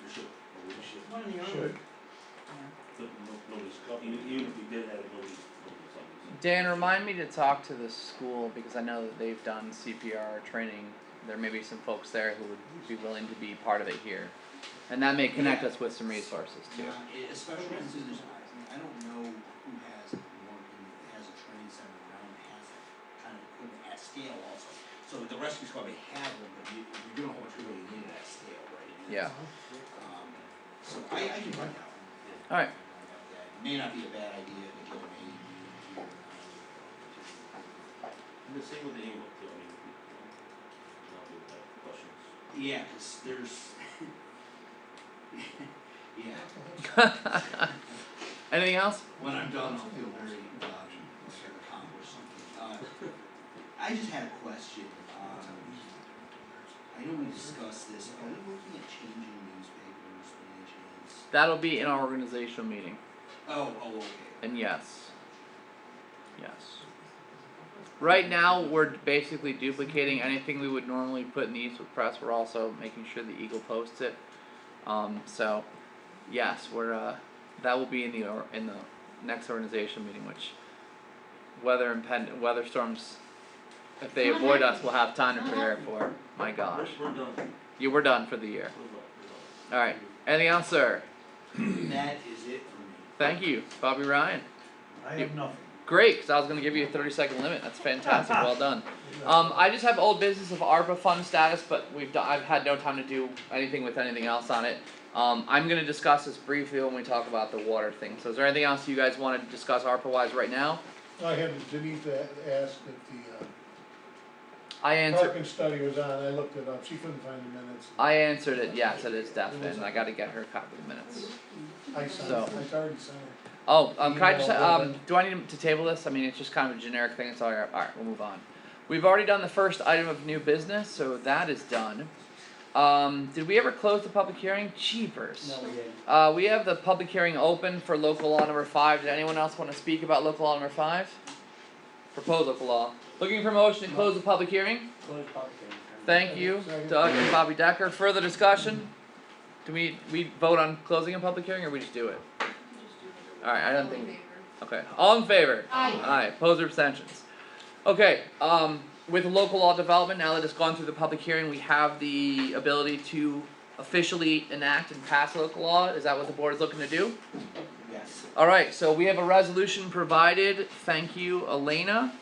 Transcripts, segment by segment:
Oh, one or the other. Should. Yeah. But no- nobody's copying, it. even if we did have it, nobody's, nobody's on Dan, remind me to talk to the school because I know that they've done CPR training. There may be some folks there who would be willing to be part of it here. And that may connect us with some resources too. Yeah, e- especially since there's, I mean, I don't know who has more, than- has a training center around, that has that kind of equipment at scale also. So the rescue squad may have one, but you, you don't know what you really need at scale, right? And Yeah. that's, Um, so I, I can find out. Alright, It may not be a bad idea to get an aid. to- The same with the handbook too, I mean, we- not with that questions. Yeah, cause there's. Yeah, anything else? when I'm done, I'll feel very, uh, like I've accomplished something. Uh, I just had a question, um, I know we discussed this, are we looking at changing newspapers, any chance? That'll be in our organizational meeting. Oh, oh, okay, And yes. Yes. Right now, we're basically duplicating anything we would normally put in the Eastwood Press. We're also making sure the Eagle posts it. Um, so, yes, we're uh, that will be in the or, in the next organization meeting, which weather impend weather storms, if they Not avoid us, happening. we'll have time to Not prepare for. My gosh, We're, we're done, we're done, you were done for the year. we're All right, done. anything else, sir? that is it for me. Thank you, Bobby Ryan. I have have nothing. Great, because I was going to give you a 30 second limit. That's fantastic. Well done. Um, I just have old business of ARPA fund status, but we've do- I've had no time to do anything with anything else on it. Um, I'm going to discuss this briefly when we talk about the water thing. So, is there anything else you guys want to discuss ARPA wise right now? I had Denise a- asked if I the uh, answered. parking study was on, I looked it up, she couldn't find the minutes. I answered it. Yes, it is definite. and I got to get her a copy of the minutes. I signed, So- I already signed it. Oh, um, can I just, Email um, open. do I need to table this? I mean, it's just kind of a generic thing, it's all right, all right, we'll move on. We've already done the first item of new business, so that is done. Um, did we ever close the public hearing? Cheapers. No, yeah, Uh, we have the public hearing open for local law number five. Did anyone else wanna speak about local law number five? Proposed local law. Looking for motion to close the public hearing? close public hearing. Thank you, Second. Doug and Bobby Decker. Further discussion? Do we, we vote on closing a public hearing or we just do it? Alright, I don't think. Okay, all in favor? Aye. Aye, opposed or abstentions? Okay, um, with local law development, now that it's gone through the public hearing, we have the ability to officially enact and pass local law, is that what the board is looking to do? Yes, Alright, so we have a resolution provided, thank you Elena.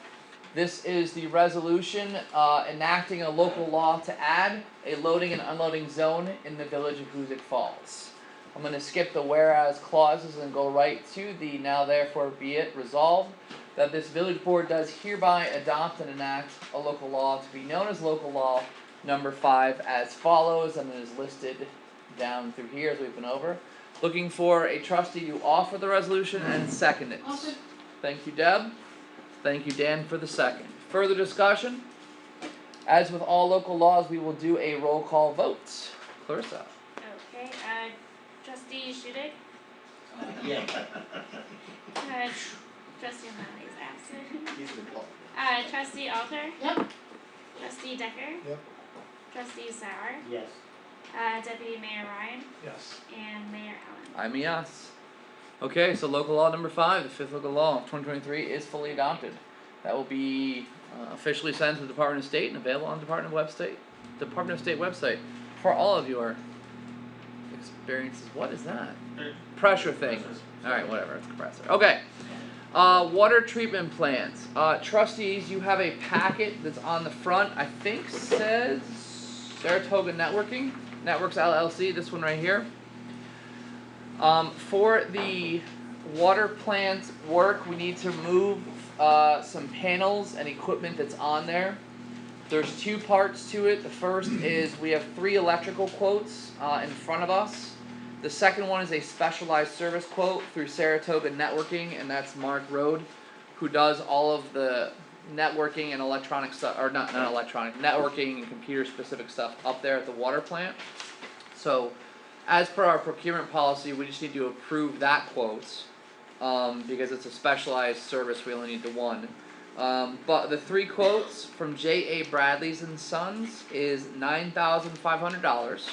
This is the resolution, uh, enacting a local law to add a loading and unloading zone in the village of Hoosick Falls. I'm gonna skip the whereas clauses and go right to the now therefore be it resolved that this village board does hereby adopt and enact a local law to be known as local law number five as follows and it is listed down through here as we've been over. Looking for a trustee to offer the resolution and second it. Offer. Thank you, Deb. Thank you, Dan, for the second. Further discussion? As with all local laws, we will do a roll call vote. Clarissa. Okay, uh, trustee Shudik, uh, yeah, uh, trustee O'Malley is absent. he's been called. Uh, trustee Alter. Yep. Trustee Decker. Yep. Trustee Sauer, Yes. uh, deputy mayor Ryan, Yes. and mayor Allen. I'm a yes. Okay, so local law number five, the fifth local law of twenty twenty-three is fully adopted. That will be uh, officially signed to the Department of State and available on the Department of Website, Department of State website for all of your experiences. What is that? Er, Pressure thing. Pressure. Alright, whatever, it's compressor. Okay. Uh, water treatment plants. Uh, trustees, you have a packet that's on the front, I think says Saratoga Networking, Networks LLC, this one right here. Um, for the water plant work, we need to move, uh, some panels and equipment that's on there. There's two parts to it. The first is we have three electrical quotes, uh, in front of us. The second one is a specialized service quote through Saratoga Networking, and that's Mark Road, who does all of the networking and electronic stuff, or not not electronic, networking and computer specific stuff up there at the water plant. So, as per our procurement policy, we just need to approve that quote, um, because it's a specialized service. We only need the one. Um, but the three quotes from J A Bradley's and Sons is nine thousand five hundred dollars.